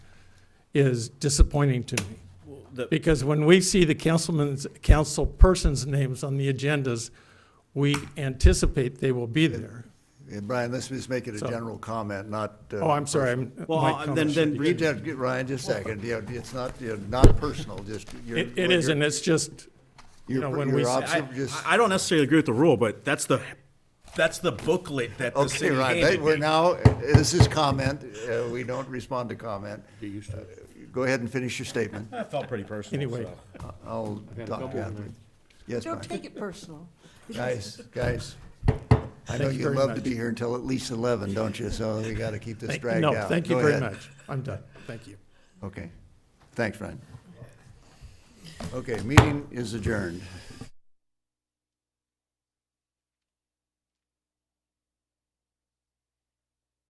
is disappointing to me. The- Because when we see the councilman's, councilperson's names on the agendas, we anticipate they will be there. Yeah, Brian, let's just make it a So- general comment, not. uh, Oh, I'm sorry, I'm. Well, my uh, then- comments then should be- You just- Ryan, just a second, you know, it's not, you know, not personal, just your. It, it is, and it's just, you know, when we, say- I, I don't necessarily agree with the rule, but that's the, that's the booklet that the Okay, city Ryan, that- handed we're me. now, uh, this is comment, uh, we don't respond to comment. Uh, Go ahead and finish your statement. That felt pretty personal, anyway, so. I'll talk after. Yes, Don't Brian. take it personal. Guys, guys, I know Thank you you'd very love to much. be here until at least 11, don't you? So we got to keep this thank- dragged out. no, thank you Go very ahead. much. I'm done. Thank you. Okay, thanks, Ryan. Okay, meeting is adjourned.